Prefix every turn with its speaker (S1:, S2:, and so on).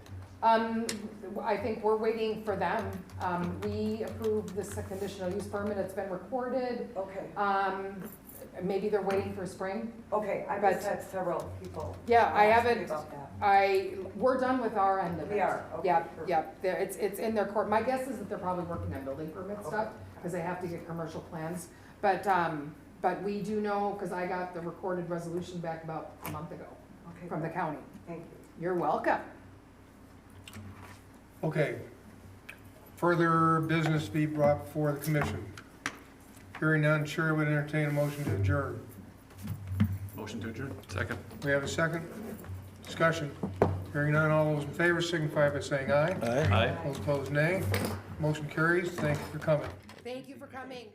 S1: Um, I think we're waiting for them. Um, we approved this conditional use permit, it's been recorded.
S2: Okay,
S1: Um, maybe they're waiting for spring.
S2: okay, I've
S1: But-
S2: just had several people.
S1: Yeah, I
S2: ask me
S1: haven't,
S2: About that.
S1: I, we're done with our end of it.
S2: Oh, We are, okay,
S1: Yep,
S2: perfect.
S1: yep, They're- it's, it's in their court. My guess is that they're probably working on building permit stuff, because they have to get commercial plans. But, um, but we do know, because I got the recorded resolution back about a month ago
S2: Okay,
S1: from the county.
S2: thank you.
S1: You're welcome.
S3: Okay. Further business to be brought before the commission. Hearing none, chair would entertain a motion to adjourn.
S4: Motion to adjourn. Second.
S3: We have a second? Discussion. Hearing none, all those in favor signify by saying aye.
S4: Aye.
S3: Those opposed, nay. Motion carries. Thank you for coming.
S1: Thank you for coming.